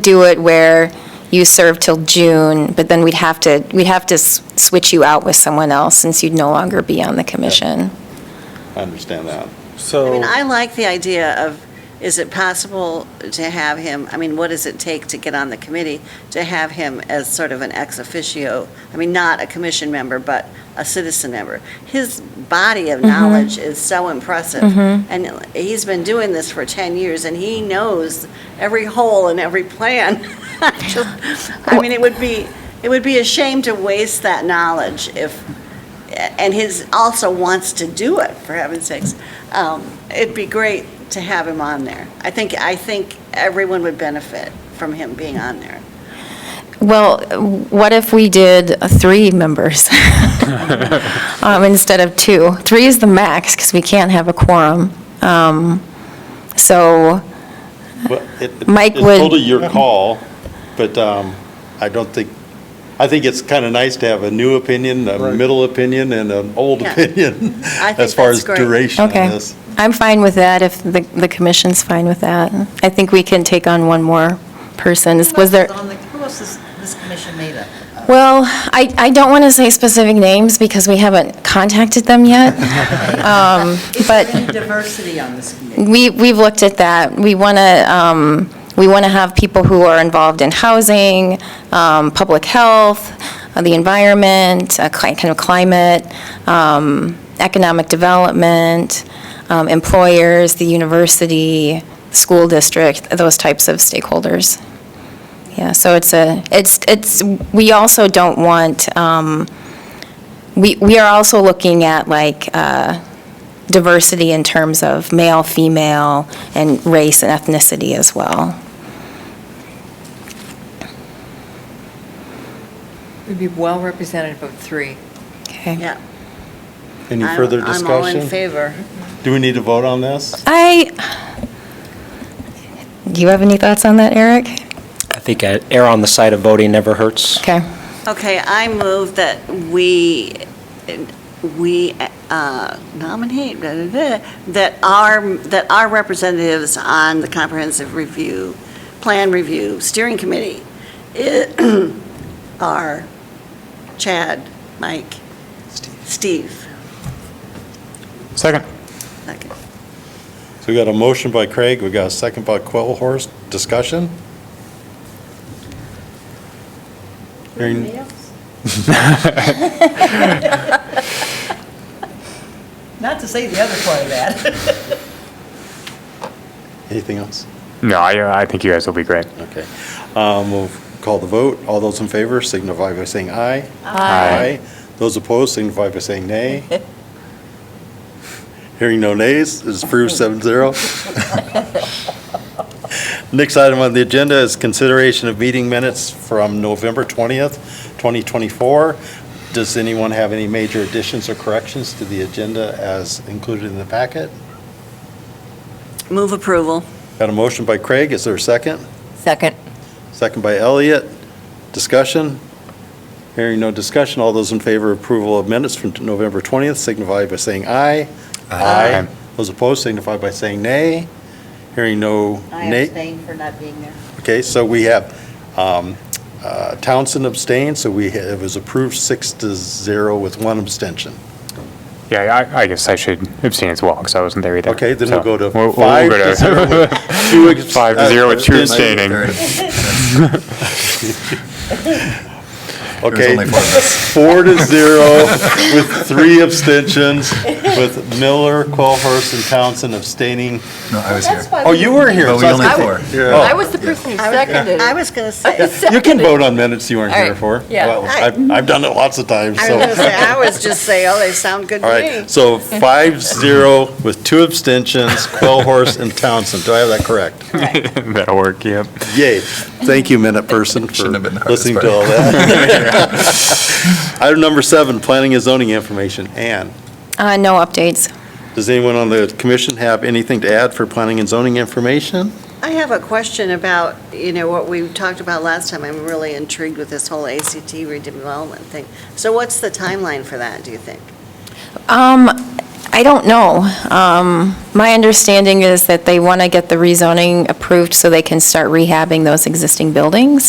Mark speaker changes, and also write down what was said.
Speaker 1: do it where you serve till June, but then we'd have to, we'd have to s- switch you out with someone else since you'd no longer be on the commission.
Speaker 2: I understand that.
Speaker 3: I mean, I
Speaker 4: So,
Speaker 3: like the idea of, is it possible to have him, I mean, what does it take to get on the committee? To have him as sort of an ex officio, I mean, not a commission member, but a citizen member. His body of knowledge is so impressive. And he's been doing this for 10 years, and he knows every hole in every plan. Just- I mean, it would be, it would be a shame to waste that knowledge if, and his, also wants to do it, for heaven's sakes. Um, It'd be great to have him on there. I think, I think everyone would benefit from him being on there.
Speaker 1: Well, what if we did three members um, instead of two? Three is the max because we can't have a quorum. Um, So,
Speaker 2: But it- it-
Speaker 1: Mike would-
Speaker 2: It's totally your call, but um, I don't think, I think it's kind of nice to have a new opinion, a
Speaker 4: Right.
Speaker 2: middle opinion, and an old
Speaker 3: Yeah.
Speaker 2: opinion
Speaker 3: I think
Speaker 2: as far
Speaker 3: that's
Speaker 2: as
Speaker 3: great.
Speaker 2: duration of
Speaker 1: okay,
Speaker 2: this.
Speaker 1: I'm fine with that if the, the commission's fine with that. I think we can take on one more person. Is- Was there?
Speaker 5: Who else is on the- Who else is this commission made up? of?
Speaker 1: Well, I, I don't want to say specific names because we haven't contacted them yet. Um,
Speaker 5: Is there
Speaker 1: But
Speaker 5: any diversity on this committee?
Speaker 1: we, we've looked at that. We want to, we want to have people who are involved in housing, um, public health, uh, the environment, uh, cli- kind of climate, um, economic development, um, employers, the university, school district, those types of stakeholders. Yeah, so it's a, it's, it's, we also don't want, um, we, we are also looking at like uh, diversity in terms of male, female, and race and ethnicity as well.
Speaker 6: We'd be well representative of three.
Speaker 1: Okay.
Speaker 3: Yeah.
Speaker 2: Any
Speaker 3: I'm-
Speaker 2: further
Speaker 3: I'm all in
Speaker 2: discussion?
Speaker 3: favor.
Speaker 2: Do we need to vote on this?
Speaker 1: I, do you have any thoughts on that, Eric?
Speaker 7: I think uh, err on the side of voting never hurts.
Speaker 1: Okay.
Speaker 3: Okay, I move that we, we uh, nominate, blah, blah, blah, that our, that our representatives on the Comprehensive Review, Plan Review Steering Committee i- are Chad, Mike, Steve.
Speaker 4: second.
Speaker 3: Second.
Speaker 2: So we got a motion by Craig, we got a second by Quillhorse, discussion? Hearing-
Speaker 5: Not to say the other part of that.
Speaker 2: Anything else?
Speaker 8: No, I, I think you guys will be great.
Speaker 2: Okay. Um, We'll call the vote. All those in favor signify by saying aye.
Speaker 8: Aye.
Speaker 2: Those opposed signify by saying nay. Hearing no nays, it's approved seven zero. Next item on the agenda is consideration of meeting minutes from November 20th, 2024. Does anyone have any major additions or corrections to the agenda as included in the packet?
Speaker 3: Move approval.
Speaker 2: Got a motion by Craig. Is there a second?
Speaker 6: Second.
Speaker 2: Second by Elliot. Discussion? Hearing no discussion, all those in favor of approval of minutes from November 20th signify by saying aye.
Speaker 8: Aye.
Speaker 2: Those opposed signify by saying nay. Hearing no nay.
Speaker 3: for not being there.
Speaker 2: Okay, so we have um, uh, Townsend abstained, so we, ha- it was approved six to zero with one abstention.
Speaker 8: Yeah, I, I guess I should abstain as well, because I wasn't there either.
Speaker 2: Okay, then we'll
Speaker 8: So,
Speaker 2: go to
Speaker 8: we'll- we'll
Speaker 2: five
Speaker 8: go
Speaker 2: to
Speaker 8: to-
Speaker 2: zero with two abs-
Speaker 8: Five to zero with two
Speaker 2: uh,
Speaker 8: abstaining.
Speaker 2: Okay, four to zero with three abstentions, with Miller, Qualhorst, and Townsend abstaining.
Speaker 9: No, I was here.
Speaker 2: Oh, you were here.
Speaker 9: But we
Speaker 2: so I
Speaker 9: only
Speaker 2: was-
Speaker 9: had four.
Speaker 6: I was the person who seconded.
Speaker 3: I was going to say,
Speaker 2: You can vote on minutes you weren't
Speaker 6: All
Speaker 2: here
Speaker 6: right,
Speaker 2: for.
Speaker 6: yeah.
Speaker 2: Well, I've, I've done it lots of times,
Speaker 3: I was going to
Speaker 2: so.
Speaker 3: say, I was just saying, oh, they sound good to
Speaker 2: All
Speaker 3: me.
Speaker 2: right, so five zero with two abstentions, Qualhorst and Townsend. Do I have that correct?
Speaker 8: That'll work, yep.
Speaker 2: Yay. Thank you, minute person, for
Speaker 9: Shouldn't have been the hardest
Speaker 2: listening to all
Speaker 9: part.
Speaker 2: that. Item number seven, planning and zoning information. Ann,
Speaker 1: Uh, No updates.
Speaker 2: does anyone on the commission have anything to add for planning and zoning information?
Speaker 3: I have a question about, you know, what we talked about last time. I'm really intrigued with this whole ACT redevelopment thing. So what's the timeline for that, do you think?
Speaker 1: Um, I don't know. Um, My understanding is that they want to get the rezoning approved so they can start rehabbing those existing buildings.